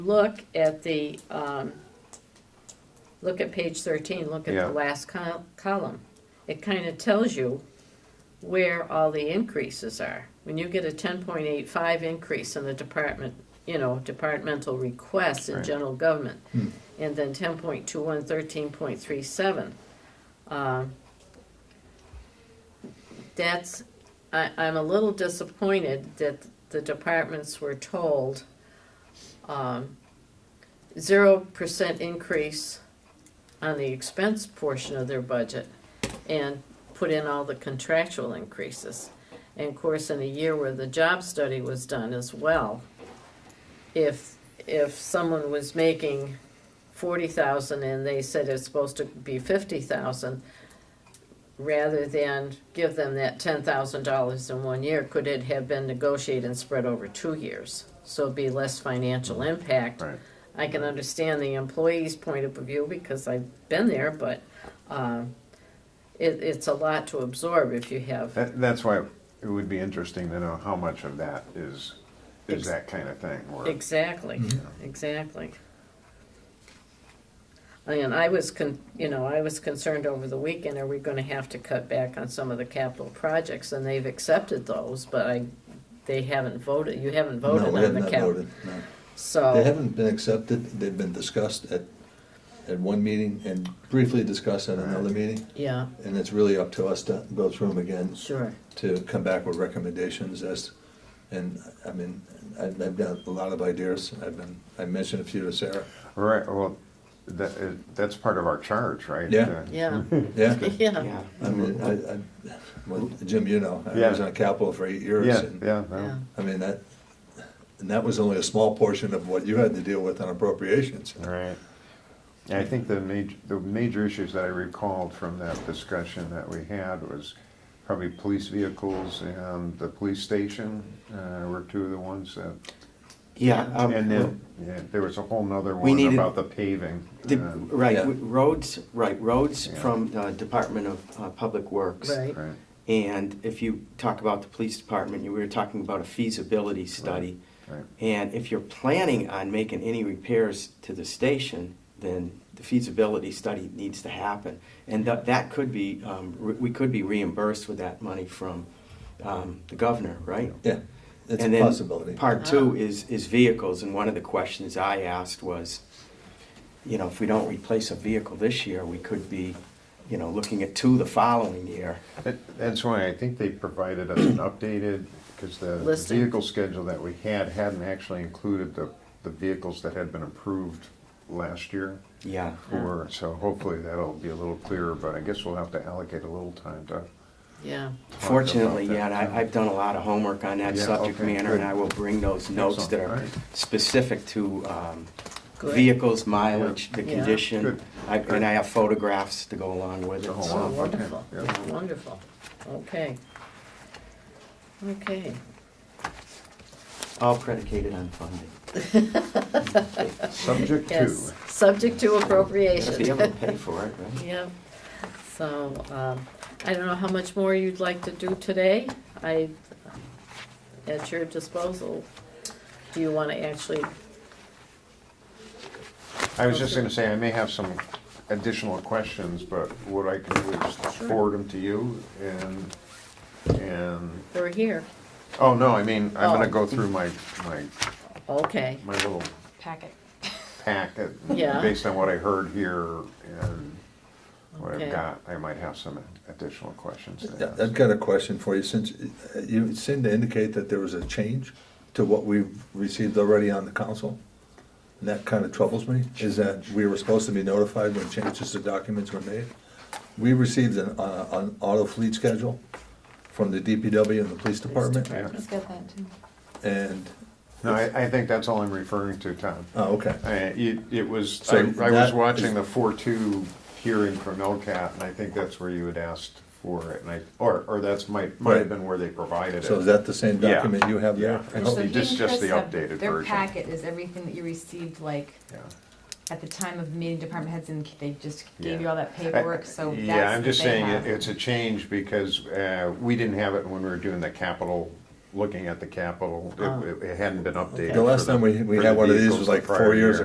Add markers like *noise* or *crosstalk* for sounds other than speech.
look at the, um, look at page thirteen, look at Yeah. the last col- column. It kind of tells you where all the increases are. When you get a ten point eight five increase in the department, you know, departmental requests in Right. general government, and then ten point two one, thirteen point three seven. um, That's, I, I'm a little disappointed that the departments were told um, zero percent increase on the expense portion of their budget and put in all the contractual increases. And of course, in a year where the job study was done as well, if, if someone was making forty thousand and they said it's supposed to be fifty thousand, rather than give them that ten thousand dollars in one year, could it have been negotiated and spread over two years? So it'd be less financial impact. Right. I can understand the employee's point of view because I've been there, but um, it, it's a lot to absorb if you have. That, that's why it would be interesting to know how much of that is, Ex- is that kind of thing, or, Exactly, Mm-hmm. exactly. And I was, con- you know, I was concerned over the weekend, are we gonna have to cut back on some of the capital projects? And they've accepted those, but I, they haven't voted, you haven't voted No, we on have the not cap. voted, no. They So, haven't been accepted, they've been discussed at, at one meeting and briefly discussed at another meeting. yeah, And it's really up to us to go through them again, sure, to come back with recommendations as, and, I mean, I've, I've got a lot of ideas. I've been, I mentioned a few to Sarah. right, well, that, it- that's part of our charge, right? Yeah. Uh, *laughs* yeah, *laughs* *laughs* Yeah, yeah, I mean, I, I, well, Jim, you know, I was Yeah. on Capitol for eight years. Yeah, and- yeah, yeah, no, I mean, that, and that was only a small portion of what you had to deal with on appropriations. all right. And I think the major, the major issues that I recalled from that discussion that we had was probably police vehicles and the police station, uh, were two of the ones that, Yeah, um, and then, yeah, there was a whole nother We one needed- about the paving. the- uh, right, Yeah. roads, right, roads Yeah. from uh, Department of uh, Public Works. right, Right, And if you talk about the police department, you were talking about a feasibility study. right, And if you're planning on making any repairs to the station, then the feasibility study needs to happen. And that, that could be, um, re- we could be reimbursed with that money from um, the governor, right? Yeah, it's a And then possibility. Part two is, is vehicles, and one of the questions I asked was, you know, if we don't replace a vehicle this year, we could be, you know, looking at two the following year. That- That's why I think they provided us an updated, because the Listing. vehicle schedule that we had hadn't actually included the, the vehicles that had been approved last year. Yeah. Or, so hopefully that'll be a little clearer, but I guess we'll have to allocate a little time to, yeah. Fortunately, Talked yeah, about and that, I, I've done a lot of homework on that Yeah, subject okay, matter, and good. I will bring those notes that Excellent, all are right. specific to, um, Good. vehicles, mileage, the Yeah. condition. Good. I- And I have photographs to go along with To it, go so- Oh, along. Okay, wonderful, yeah. Yeah, wonderful, okay. Okay, all predicated on funding. *laughs* subject two. yes, subject to Gotta Be able *laughs* to appropriation. pay for it, right? Yeah, so, um, I don't know how much more you'd like to do today, I, at your disposal. Do you wanna actually, I was just gonna say, I may have some additional questions, but what I can do is Sure. forward them to you and, and, we're here, oh, no, I mean, I'm Oh. gonna go through my, my, okay, my little packet. packet, Yeah. based on what I heard here and what Okay. I've got, I might have some additional questions to Yeah, I've ask. got a question for you, since uh, you seem to indicate that there was a change to what we've received already on the council, and that kind of troubles me, is that we were supposed to be notified when changes to documents were made. We received an, uh, an auto fleet schedule from the DPW and the police department, department. He's got that too. and, No, I, I think that's all I'm referring to, Tom. oh, okay. I- It, it was, So I I was that watching is- the four-two hearing from LCAT, and I think that's where you had asked for it, and I, or, or that's might, might have Right. been where they provided it. So is that the same Yeah, document you have there? yeah. So Oh, just- he and just Chris the have- updated Their version. packet is everything that you received, like, Yeah. at the time of meeting department heads, and they just gave Yeah. you all that paperwork, so that's. Yeah, I'm what just they saying, have. it- it's a change because uh, we didn't have it when we were doing the capital looking at the capital, Oh. it, it hadn't been updated. The last for time we, we for had the one of these vehicles was the like prior four years year.